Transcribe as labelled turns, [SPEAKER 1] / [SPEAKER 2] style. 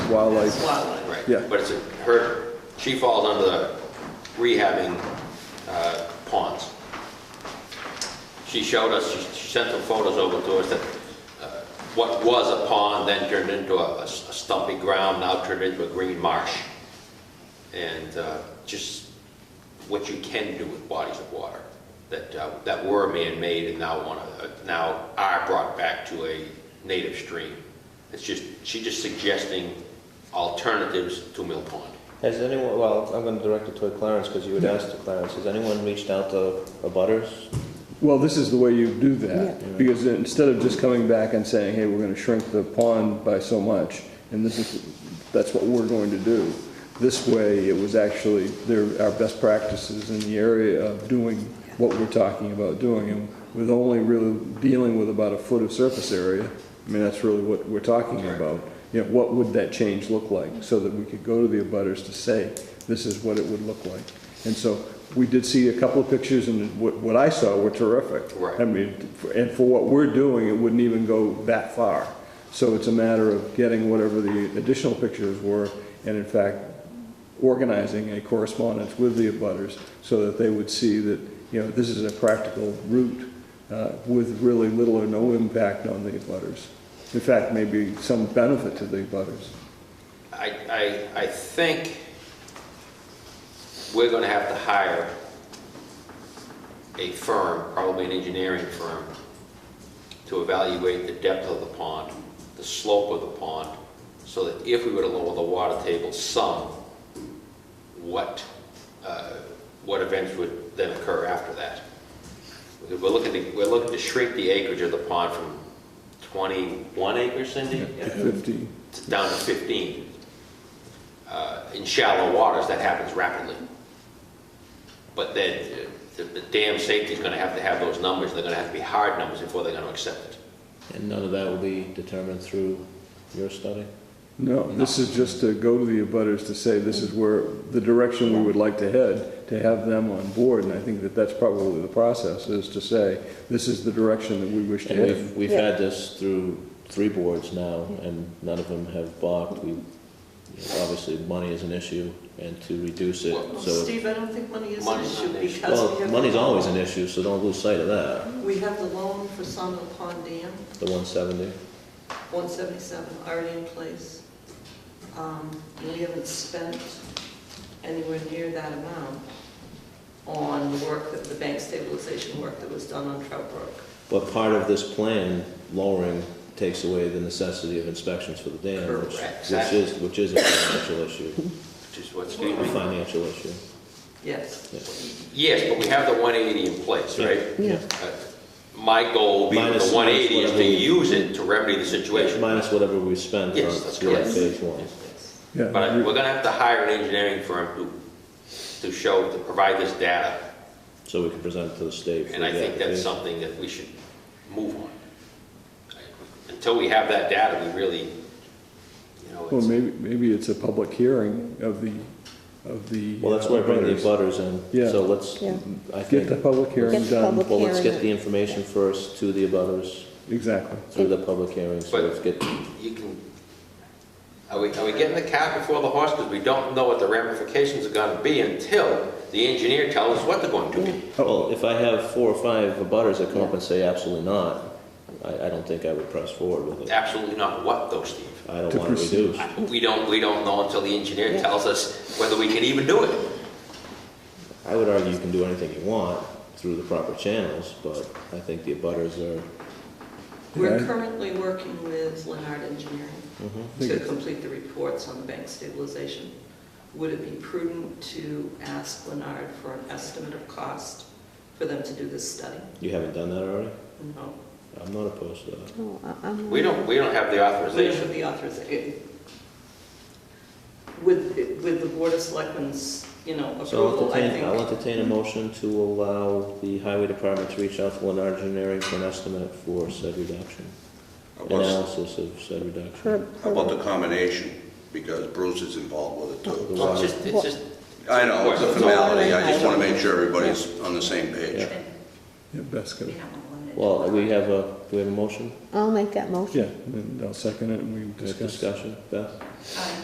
[SPEAKER 1] wildlife.
[SPEAKER 2] That's wildlife.
[SPEAKER 3] Right.
[SPEAKER 1] Yeah.
[SPEAKER 3] But it's, a- her, she falls under the rehabbing uh, ponds. She showed us, she- she sent some photos over to us that uh, what was a pond then turned into a a s- a stumpy ground, now turned into a green marsh. And uh, just what you can do with bodies of water that, uh, that were man-made and now want to, now are brought back to a native stream. It's just, she's just suggesting alternatives to Mill Pond.
[SPEAKER 4] Has anyone, well, I'm gonna direct it toward Clarence, because you would ask to Clarence, has anyone reached out to the butters?
[SPEAKER 1] Well, this is the way you do that, because instead of just coming back and saying, hey, we're gonna shrink the pond by so much, and this is, that's what we're going to do. This way, it was actually, there are best practices in the area of doing what we're talking about doing, and with only really dealing with about a foot of surface area, I mean, that's really what we're talking about. You know, what would that change look like, so that we could go to the abutters to say, this is what it would look like. And so, we did see a couple of pictures, and what, what I saw were terrific.
[SPEAKER 3] Right.
[SPEAKER 1] I mean, for- and for what we're doing, it wouldn't even go that far. So it's a matter of getting whatever the additional pictures were, and in fact, organizing a correspondence with the abutters, so that they would see that, you know, this is a practical route, uh, with really little or no impact on the abutters. In fact, maybe some benefit to the abutters.
[SPEAKER 3] I, I, I think we're gonna have to hire a firm, probably an engineering firm, to evaluate the depth of the pond, the slope of the pond, so that if we were to lower the water table some, what, uh, what events would then occur after that? We're looking to, we're looking to shrink the acreage of the pond from 21 acres, Cindy?
[SPEAKER 1] Fifty,
[SPEAKER 3] It's down to 15. Uh, In shallow waters, that happens rapidly. But then uh, the the dam safety is going to have to have those numbers, they're going to have to be hard numbers before they're going to accept it.
[SPEAKER 4] And none of that will be determined through your study?
[SPEAKER 1] No, this is just to go to the abutters to say this is where, the direction we would like to head, to have them on board, and I think that that's probably the process, is to say, this is the direction that we wish to
[SPEAKER 4] And
[SPEAKER 1] head.
[SPEAKER 4] we've, we've
[SPEAKER 2] Yeah.
[SPEAKER 4] had this through three boards now, and none of them have balked. We, you know, obviously, money is an issue, and to reduce it,
[SPEAKER 3] Well,
[SPEAKER 4] so. it-
[SPEAKER 2] Steve, I don't think money is an
[SPEAKER 3] Money's
[SPEAKER 2] issue
[SPEAKER 3] not an issue.
[SPEAKER 2] because we
[SPEAKER 4] Well,
[SPEAKER 2] have.
[SPEAKER 4] money's always an issue, so don't lose sight of that,
[SPEAKER 2] We have the loan for Sawmill Pond Dam,
[SPEAKER 4] the one seventy.
[SPEAKER 2] 177, already in place. Um, We haven't spent anywhere near that amount on the work, that the bank stabilization work that was done on Trout Brook.
[SPEAKER 4] But part of this plan, lowering, takes away the necessity of inspections for the dam, which,
[SPEAKER 3] Correct.
[SPEAKER 4] which is, which is a financial issue,
[SPEAKER 3] Which is what's,
[SPEAKER 4] a financial issue.
[SPEAKER 2] Yes.
[SPEAKER 3] yes, but we have the 180 in place, right?
[SPEAKER 4] Yeah.
[SPEAKER 3] Uh, My goal being
[SPEAKER 4] Minus-
[SPEAKER 3] the 180 is to
[SPEAKER 4] minus whatever.
[SPEAKER 3] use it to remedy the situation.
[SPEAKER 4] Minus whatever we spend on,
[SPEAKER 3] Yes, that's
[SPEAKER 4] on
[SPEAKER 3] correct.
[SPEAKER 4] phase one.
[SPEAKER 2] Yes.
[SPEAKER 1] Yeah,
[SPEAKER 3] But I- we're going to have to hire an engineering firm to, to show, to provide this data.
[SPEAKER 4] So we can present it to the state. for
[SPEAKER 3] And I
[SPEAKER 4] the
[SPEAKER 3] think that's
[SPEAKER 4] application.
[SPEAKER 3] something that we should move on. Until we have that data, we really, you know,
[SPEAKER 1] Well,
[SPEAKER 3] it's-
[SPEAKER 1] maybe, maybe it's a public hearing of the, of the.
[SPEAKER 4] Well, that's where I bring the
[SPEAKER 1] abutters.
[SPEAKER 4] butters in,
[SPEAKER 1] Yeah.
[SPEAKER 4] so let's,
[SPEAKER 5] Yeah.
[SPEAKER 4] I
[SPEAKER 1] Get the
[SPEAKER 4] think,
[SPEAKER 1] public
[SPEAKER 5] Get
[SPEAKER 1] hearing
[SPEAKER 5] the
[SPEAKER 1] done,
[SPEAKER 5] public-
[SPEAKER 4] well, let's get
[SPEAKER 5] Hearing.
[SPEAKER 4] the information first to the butters
[SPEAKER 1] exactly.
[SPEAKER 4] through the public hearing, so
[SPEAKER 3] But-
[SPEAKER 4] let's get,
[SPEAKER 3] you can, are we, are we getting the cat before the horse? Because we don't know what the ramifications are gonna be until the engineer tells us what they're going to be.
[SPEAKER 4] well, if I have four or five butters that come up and say absolutely not, I, I don't think I would press forward with it.
[SPEAKER 3] Absolutely not what though, Steve.
[SPEAKER 4] I don't
[SPEAKER 1] To
[SPEAKER 4] want to
[SPEAKER 1] proceed.
[SPEAKER 4] reduce.
[SPEAKER 3] We don't, we don't know until the engineer tells us whether we can even do it.
[SPEAKER 4] I would argue you can do anything you want through the proper channels, but I think the butters are,
[SPEAKER 2] We're
[SPEAKER 1] Yeah.
[SPEAKER 2] currently working with Leonard Engineering
[SPEAKER 4] mm-hmm.
[SPEAKER 2] to complete the reports on the bank stabilization. Would it be prudent to ask Leonard for an estimate of cost for them to do this study?
[SPEAKER 4] you haven't done that already?
[SPEAKER 2] No.
[SPEAKER 4] I'm not opposed to that.
[SPEAKER 5] No, I- I'm-
[SPEAKER 3] We don't, we don't have the
[SPEAKER 2] We don't have
[SPEAKER 3] authorization.
[SPEAKER 2] the authorization. With, with the Board of Selectmen's, you know,
[SPEAKER 4] So I'll
[SPEAKER 2] approval, I
[SPEAKER 4] entertain, I'll
[SPEAKER 2] think.
[SPEAKER 4] entertain a motion to allow the highway department to reach out to Leonard Engineering for an estimate for said reduction,
[SPEAKER 6] About
[SPEAKER 4] analysis of said
[SPEAKER 5] per-
[SPEAKER 4] reduction.
[SPEAKER 5] per-
[SPEAKER 6] about the combination, because Bruce is involved with it too.
[SPEAKER 4] The
[SPEAKER 3] It's
[SPEAKER 4] water.
[SPEAKER 3] just, it's just,
[SPEAKER 6] I know, it's a formality, I just want to make sure everybody's on the same
[SPEAKER 4] Yeah.
[SPEAKER 6] page.
[SPEAKER 1] Yeah, best, go.
[SPEAKER 4] Well, we have a, do we have a motion,
[SPEAKER 5] I'll make that motion.
[SPEAKER 1] yeah, and I'll second it, and we
[SPEAKER 4] We have
[SPEAKER 1] discuss.
[SPEAKER 4] discussion, Beth?
[SPEAKER 2] Um,